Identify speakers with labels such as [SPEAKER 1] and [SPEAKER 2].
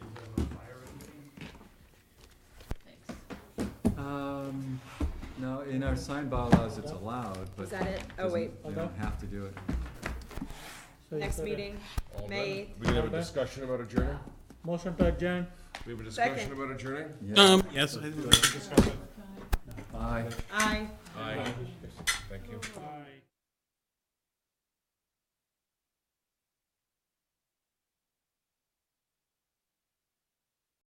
[SPEAKER 1] Um, in our sign bylaws, it's allowed,
[SPEAKER 2] Is
[SPEAKER 1] but
[SPEAKER 2] that it? Oh,
[SPEAKER 1] doesn't-
[SPEAKER 2] wait,
[SPEAKER 1] you don't have to do it.
[SPEAKER 2] So next meeting,
[SPEAKER 3] All
[SPEAKER 2] May
[SPEAKER 3] done.
[SPEAKER 2] eighth.
[SPEAKER 3] We didn't have
[SPEAKER 4] Okay.
[SPEAKER 3] a discussion about adjourning?
[SPEAKER 4] Motion to adjourn.
[SPEAKER 3] We have a
[SPEAKER 2] Second.
[SPEAKER 3] discussion about adjourning?
[SPEAKER 1] Yeah,
[SPEAKER 5] Um, yes, I
[SPEAKER 1] aye.
[SPEAKER 2] aye.
[SPEAKER 3] Thank you.